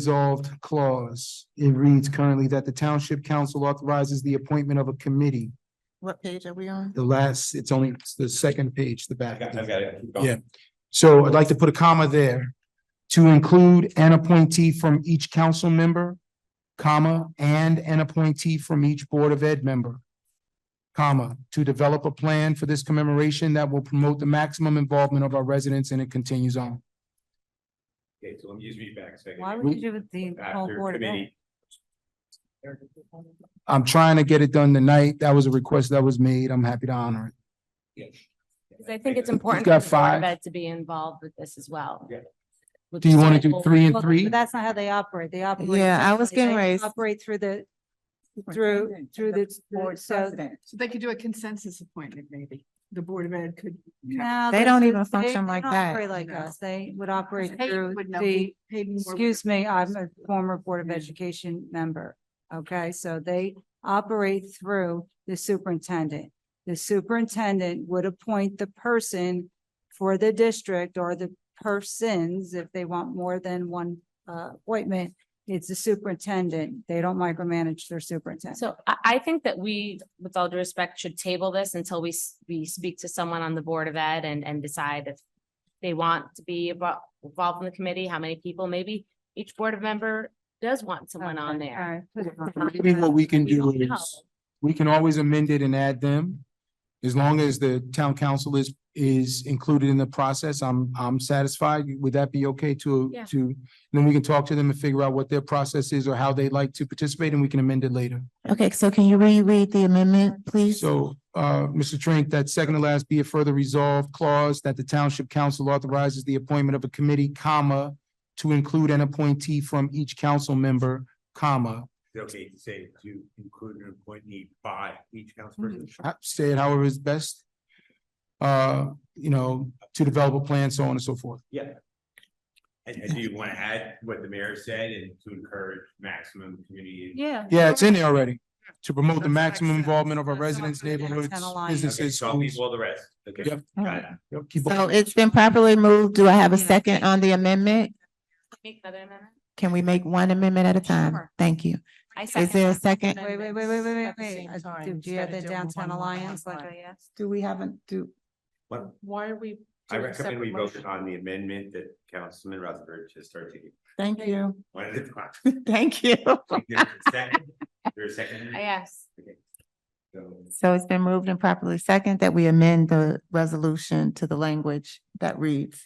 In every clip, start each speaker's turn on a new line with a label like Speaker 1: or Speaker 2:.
Speaker 1: resolved clause. It reads currently that the township council authorizes the appointment of a committee.
Speaker 2: What page are we on?
Speaker 1: The last, it's only it's the second page, the back.
Speaker 3: I've got it. Keep going.
Speaker 1: Yeah. So I'd like to put a comma there to include an appointee from each council member, comma, and an appointee from each Board of Ed member, comma, to develop a plan for this commemoration that will promote the maximum involvement of our residents, and it continues on.
Speaker 3: Okay, so let me just read back a second.
Speaker 4: Why
Speaker 1: We-
Speaker 4: would you do it the whole
Speaker 3: After
Speaker 4: board of ed?
Speaker 3: committee.
Speaker 1: I'm trying to get it done tonight. That was a request that was made. I'm happy to honor it.
Speaker 5: Because I think it's important.
Speaker 1: got
Speaker 5: for the Board of
Speaker 1: five.
Speaker 5: Ed To be involved with this as well.
Speaker 3: Yeah.
Speaker 5: With
Speaker 1: Do you want to do
Speaker 5: sample-
Speaker 1: three and
Speaker 4: Well,
Speaker 1: three?
Speaker 4: But that's not how they operate. They operate.
Speaker 2: Yeah, I was
Speaker 4: differently.
Speaker 2: getting
Speaker 4: They
Speaker 2: raised.
Speaker 4: Operate through the, through, through the board, so.
Speaker 6: So they could do a consensus appointment, maybe. The Board of Ed could.
Speaker 4: no,
Speaker 2: They
Speaker 4: this
Speaker 2: don't
Speaker 4: is-
Speaker 2: even function
Speaker 4: they
Speaker 2: like
Speaker 4: don't
Speaker 2: that.
Speaker 4: operate like
Speaker 6: No.
Speaker 4: us. They would operate
Speaker 6: Hey,
Speaker 4: through
Speaker 6: would know
Speaker 4: the,
Speaker 6: who paid more.
Speaker 4: excuse me, I'm a former Board of
Speaker 6: Yeah.
Speaker 4: Education member. Okay, so they operate through the superintendent. The superintendent would appoint the person for the district or the persons, if they want more than one uh appointment. It's the superintendent. They don't micromanage their superintendent.
Speaker 5: So I, I think that we, with all due respect, should table this until we, s- we speak to someone on the Board of Ed and, and decide if they want to be abo- involved in the committee, how many people, maybe each board of member does want someone on
Speaker 4: Okay,
Speaker 5: there.
Speaker 4: all right, put it on.
Speaker 1: Maybe what we can
Speaker 5: We
Speaker 1: do
Speaker 5: don't know.
Speaker 1: is, we can always amend it and add them. As long as the town council is, is included in the process, I'm, I'm satisfied. Would that be okay to,
Speaker 5: Yeah.
Speaker 1: to? Then we can talk to them and figure out what their process is or how they'd like to participate and we can amend it later.
Speaker 2: Okay, so can you reread the amendment, please?
Speaker 1: So, uh, Mr. Trink, that second to last be a further resolved clause that the township council authorizes the appointment of a committee, comma, to include an appointee from each council member, comma.
Speaker 3: Is it Okay, to say to include an appointee by each council
Speaker 4: Mm-hmm.
Speaker 3: person.
Speaker 1: ha- say it however is best. Uh, you know, to develop a plan, so on and so forth.
Speaker 3: Yeah. And, and do you want to add what the mayor said and to encourage maximum community?
Speaker 4: Yeah.
Speaker 1: Yeah, it's in there already. To promote the
Speaker 6: That's
Speaker 1: maximum
Speaker 6: excellent.
Speaker 1: involvement of our
Speaker 6: That's so
Speaker 1: residents,
Speaker 6: good.
Speaker 1: neighborhoods,
Speaker 4: Ten aligned.
Speaker 3: Okay,
Speaker 1: businesses,
Speaker 3: so I'll leave
Speaker 1: schools.
Speaker 3: all the rest. Okay.
Speaker 1: Yep.
Speaker 3: got it.
Speaker 1: Yep, keep
Speaker 2: So
Speaker 1: on.
Speaker 2: it's been properly moved. Do I have a second on the amendment?
Speaker 5: Make another amendment?
Speaker 2: Can we make one amendment at a time?
Speaker 5: Sure.
Speaker 2: Thank you.
Speaker 5: I
Speaker 2: Is
Speaker 5: second
Speaker 2: there a
Speaker 5: that.
Speaker 2: second?
Speaker 4: Wait, wait, wait, wait, wait, wait, wait. Uh, Do do you have the downtown alliance like I asked?
Speaker 6: Do we haven't, do,
Speaker 3: What-
Speaker 6: why are we?
Speaker 3: I recommend we vote on the amendment that Councilman Rutherford just started taking.
Speaker 2: Thank you.
Speaker 3: One at a time.
Speaker 2: Thank you.
Speaker 3: Is there a second? Is there a second?
Speaker 5: I asked.
Speaker 3: Okay. So-
Speaker 2: So it's been moved and properly second that we amend the resolution to the language that reads.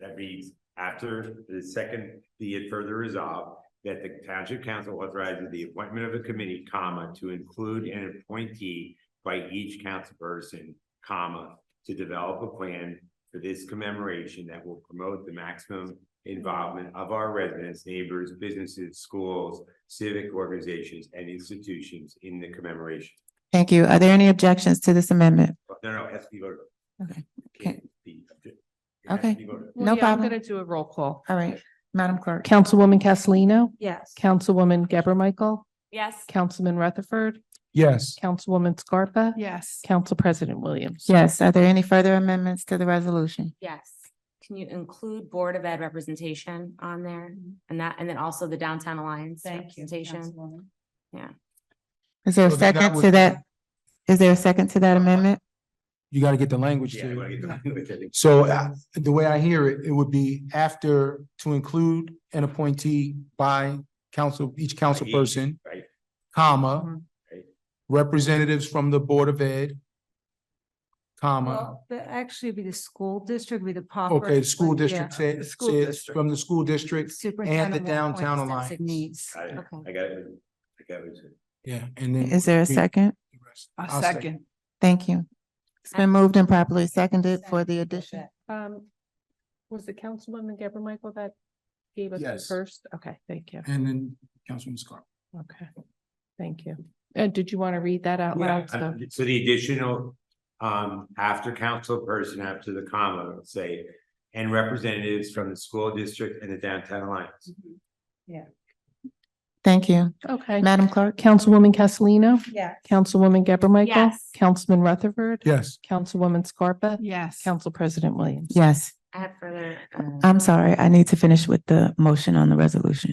Speaker 3: That reads, after the second, be it further resolved that the township council authorizes the appointment of a committee, comma, to include an appointee by each council person, comma, to develop a plan for this commemoration that will promote the maximum involvement of our residents, neighbors, businesses, schools, civic organizations, and institutions in the commemoration.
Speaker 2: Thank you. Are there any objections to this amendment?
Speaker 3: No, no, it has to be voted. on.
Speaker 2: Okay.
Speaker 3: Can't be- it has to
Speaker 2: Okay.
Speaker 3: be voted on.
Speaker 2: No problem.
Speaker 6: do a roll call.
Speaker 2: All right, Madam Clerk.
Speaker 7: Councilwoman Castellino,
Speaker 4: Yes.
Speaker 7: Councilwoman Gabor Michael,
Speaker 5: Yes.
Speaker 7: Councilman Rutherford,
Speaker 1: Yes,
Speaker 7: Councilwoman Scarpa,
Speaker 6: Yes.
Speaker 7: Council President Williams.
Speaker 2: Yes, are there any further amendments to the resolution?
Speaker 5: Yes. Can you include Board of Ed representation on there
Speaker 6: Mm-hmm.
Speaker 5: and that, and then also the Downtown Alliance
Speaker 4: Thank you.
Speaker 5: representation?
Speaker 4: Councilwoman.
Speaker 2: Is there a
Speaker 1: So that
Speaker 2: second
Speaker 1: was-
Speaker 2: to that? Is there a second to that amendment?
Speaker 1: you gotta get the language
Speaker 3: Yeah, I wanna
Speaker 1: to.
Speaker 3: get the language, I think.
Speaker 1: So uh, the way I hear it, it would be after to include an appointee by council, each council
Speaker 3: each,
Speaker 1: person,
Speaker 3: Right,
Speaker 1: comma,
Speaker 6: Mm-hmm.
Speaker 3: Right.
Speaker 1: representatives from the Board of Ed, comma,
Speaker 4: Well, But actually it'd be the school district, it'd be the. proper-
Speaker 1: okay, the school
Speaker 4: like, yeah,
Speaker 1: district say,
Speaker 6: the school
Speaker 1: says
Speaker 6: district.
Speaker 1: from the school district,
Speaker 4: superintendent will appoint
Speaker 1: downtown
Speaker 4: the
Speaker 1: alliance.
Speaker 4: designees.
Speaker 3: I, I got
Speaker 5: Okay.
Speaker 3: it, I got it.
Speaker 1: yeah, and then.
Speaker 2: Is there a
Speaker 1: we-
Speaker 2: second?
Speaker 1: the rest.
Speaker 6: A
Speaker 1: I'll
Speaker 6: second.
Speaker 2: Thank you. It's been moved and properly seconded for the addition.
Speaker 7: Um, was it Councilwoman Gabor Michael that gave us the
Speaker 1: Yes.
Speaker 7: first? Okay, thank you.
Speaker 1: And then Councilman Scarpa.
Speaker 7: Okay, thank you. And did you want to read that out
Speaker 3: Yeah,
Speaker 7: loud?
Speaker 3: uh,
Speaker 7: So-
Speaker 3: So the additional, um, after council person, after the comma, say, and representatives from the school district and the downtown alliance.
Speaker 2: Thank you.
Speaker 7: Okay,
Speaker 2: Madam Clerk?
Speaker 7: Councilwoman Castellino,
Speaker 4: Yeah.
Speaker 7: Councilwoman Gabor Michael,
Speaker 5: Yes.
Speaker 7: Councilman Rutherford,
Speaker 1: Yes.
Speaker 7: Councilwoman Scarpa,
Speaker 6: Yes.
Speaker 7: Council President Williams.
Speaker 2: Yes.
Speaker 5: I have further. uh,
Speaker 2: I'm sorry, I need to finish with the motion on the resolution.